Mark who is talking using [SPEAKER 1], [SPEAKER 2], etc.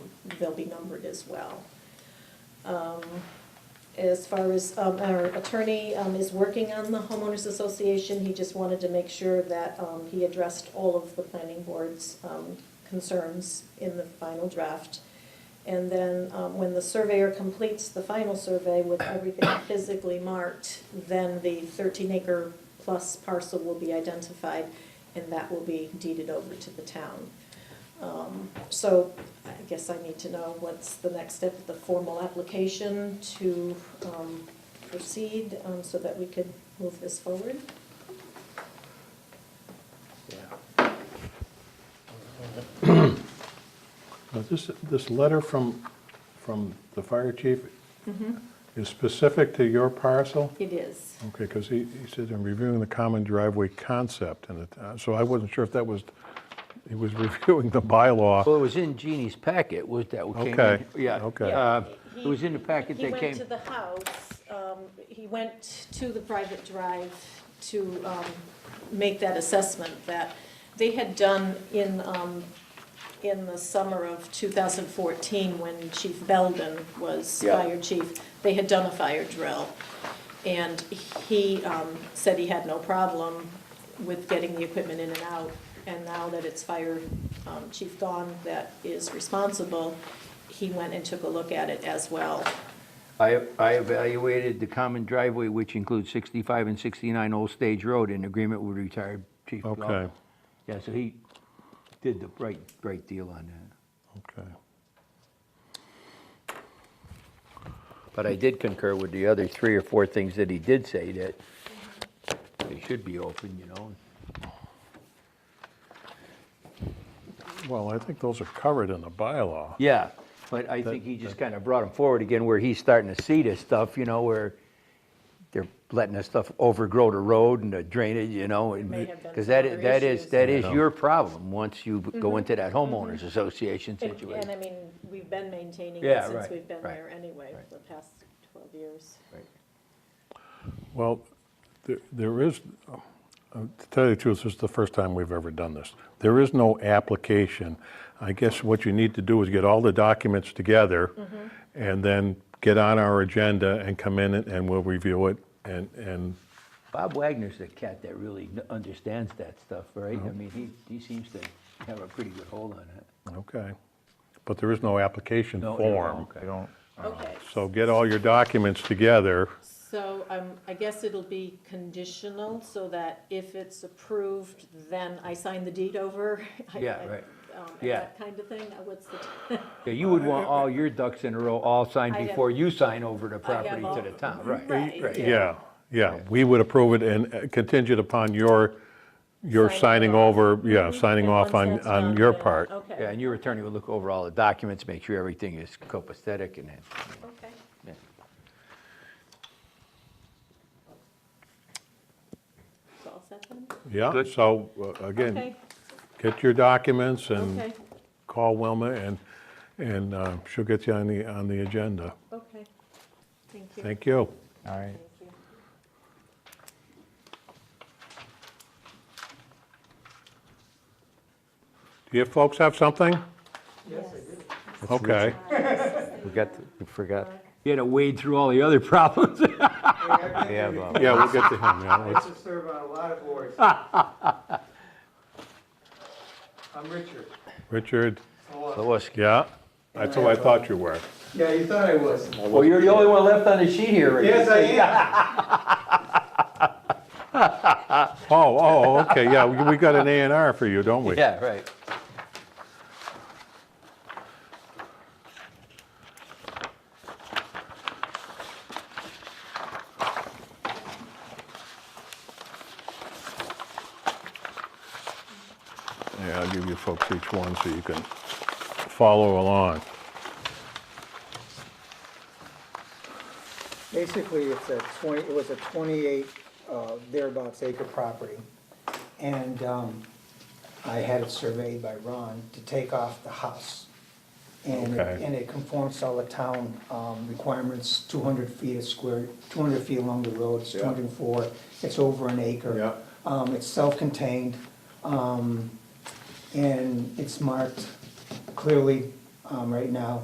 [SPEAKER 1] they'll be numbered as well. Um, As far as, um, our attorney um, is working on the homeowners association, he just wanted to make sure that um, he addressed all of the planning board's um, concerns in the final draft. And then um, when the surveyor completes the final survey with everything physically marked, then the 13-acre plus parcel will be identified, and that will be deeded over to the town. Um, So I guess I need to know what's the next step of the formal application to um, proceed um, so that we could move this forward.
[SPEAKER 2] Now, this, this letter from, from the fire chief is specific to your parcel?
[SPEAKER 1] It is.
[SPEAKER 2] Okay, because he, he said in reviewing the common driveway concept, and it, uh, so I wasn't sure if that was, he was reviewing the bylaw.
[SPEAKER 3] Well, it was in Jeannie's packet, was that what came in?
[SPEAKER 2] Okay,
[SPEAKER 3] Yeah.
[SPEAKER 2] okay.
[SPEAKER 3] uh,
[SPEAKER 1] He-
[SPEAKER 3] It was in the packet that
[SPEAKER 1] He went
[SPEAKER 3] came,
[SPEAKER 1] to the house, um, he went to the private drive to um, make that assessment that they had done in, um, in the summer of 2014, when Chief Belden was
[SPEAKER 3] Yeah.
[SPEAKER 1] fire chief. They had done a fire drill, and he um, said he had no problem with getting the equipment in and out. And now that it's fire um, chief Don that is responsible, he went and took a look at it as well.
[SPEAKER 3] I I evaluated the common driveway, which includes 65 and 69 Old Stage Road, in agreement with retired Chief Blau.
[SPEAKER 2] Okay.
[SPEAKER 3] Yeah, so he did the right, right deal on that.
[SPEAKER 2] Okay.
[SPEAKER 3] But I did concur with the other three or four things that he did say, that they should be open, you know?
[SPEAKER 2] Well, I think those are covered in the bylaw.
[SPEAKER 3] Yeah, but I think he just kind of brought them forward again where he's starting to see this stuff, you know, where they're letting this stuff overgrow the road and the drainage, you know,
[SPEAKER 1] may have been
[SPEAKER 3] because that,
[SPEAKER 1] other
[SPEAKER 3] is- that is,
[SPEAKER 1] issues. Mm-hmm.
[SPEAKER 3] that is your problem once you go into that homeowners association
[SPEAKER 1] And-
[SPEAKER 3] situation.
[SPEAKER 1] And I mean, we've been maintaining it
[SPEAKER 3] Yeah,
[SPEAKER 1] since
[SPEAKER 3] right,
[SPEAKER 1] we've been
[SPEAKER 3] right,
[SPEAKER 1] there anyway,
[SPEAKER 3] right.
[SPEAKER 1] for the past 12 years.
[SPEAKER 3] Right.
[SPEAKER 2] Well, there, there is, uh, to tell you the truth, this is the first time we've ever done this. There is no application. I guess what you need to do is get all the documents together and then get on our agenda and come in and- and we'll review it and, and,
[SPEAKER 3] Bob Wagner's the cat that really kn- understands that stuff, right? I mean, he, he seems to have a pretty good hold on it.
[SPEAKER 2] okay. But there is no application
[SPEAKER 3] No,
[SPEAKER 2] form.
[SPEAKER 3] okay. I don't.
[SPEAKER 1] Okay,
[SPEAKER 2] So get all your documents together.
[SPEAKER 1] so um, I guess it'll be conditional, so that if it's approved, then I sign the deed over? I-
[SPEAKER 3] Yeah,
[SPEAKER 1] I-
[SPEAKER 3] right.
[SPEAKER 1] um,
[SPEAKER 3] Yeah.
[SPEAKER 1] That kind of thing, Uh, what's the, t-
[SPEAKER 3] Yeah, you would want all your ducks in a row, all signed
[SPEAKER 1] I have-
[SPEAKER 3] before you sign over the
[SPEAKER 1] I have
[SPEAKER 3] property
[SPEAKER 1] all-
[SPEAKER 3] to the town, right?
[SPEAKER 1] Right, yeah.
[SPEAKER 2] Yeah, yeah, we would approve it and uh, contingent upon your, your signing
[SPEAKER 1] Signing Mm-hmm.
[SPEAKER 2] over, yeah, signing
[SPEAKER 1] And
[SPEAKER 2] off
[SPEAKER 1] once
[SPEAKER 2] on,
[SPEAKER 1] that's
[SPEAKER 2] on
[SPEAKER 1] done,
[SPEAKER 2] your
[SPEAKER 1] then-
[SPEAKER 2] part.
[SPEAKER 3] Yeah,
[SPEAKER 1] Okay,
[SPEAKER 3] and your attorney will look over all the documents, make sure everything is copacetic and then.
[SPEAKER 1] okay.
[SPEAKER 3] yeah.
[SPEAKER 1] It's all set then?
[SPEAKER 2] Yeah,
[SPEAKER 3] Good.
[SPEAKER 2] so uh, again,
[SPEAKER 1] Okay,
[SPEAKER 2] get your documents and
[SPEAKER 1] okay,
[SPEAKER 2] call Wilma and, and uh, she'll get you on the, on the agenda.
[SPEAKER 1] okay. Thank you.
[SPEAKER 2] Thank you.
[SPEAKER 4] All right.
[SPEAKER 1] Thank you.
[SPEAKER 2] Do you folks have something? Okay,
[SPEAKER 4] We got, we forgot,
[SPEAKER 3] You had to wade through all the other problems.
[SPEAKER 4] we have, uh,
[SPEAKER 2] yeah, we'll get to him, yeah.
[SPEAKER 5] I
[SPEAKER 2] let's-
[SPEAKER 5] used to serve on a lot of boards. I'm Richard.
[SPEAKER 2] Richard,
[SPEAKER 5] Hello.
[SPEAKER 3] Lois,
[SPEAKER 2] yeah, that's who I thought you were.
[SPEAKER 5] Yeah, you thought I was.
[SPEAKER 3] well, you're the only one left on the sheet here, Rick.
[SPEAKER 5] Yes, I am.
[SPEAKER 2] Oh, oh, okay, yeah, we- we got an A and R for you, don't we?
[SPEAKER 3] Yeah, right.
[SPEAKER 2] Yeah, I'll give you folks each one so you can follow along.
[SPEAKER 6] Basically, it's a 20, it was a 28 uh, thereabouts acre property. And um, I had it surveyed by Ron to take off the house. And, it-
[SPEAKER 2] Okay.
[SPEAKER 6] and it conforms to all the town um, requirements, 200 feet a square, 200 feet along the road, it's
[SPEAKER 2] Yeah.
[SPEAKER 6] 204, it's over an acre.
[SPEAKER 2] Yeah.
[SPEAKER 6] Um, It's self-contained, um, and it's marked clearly um, right now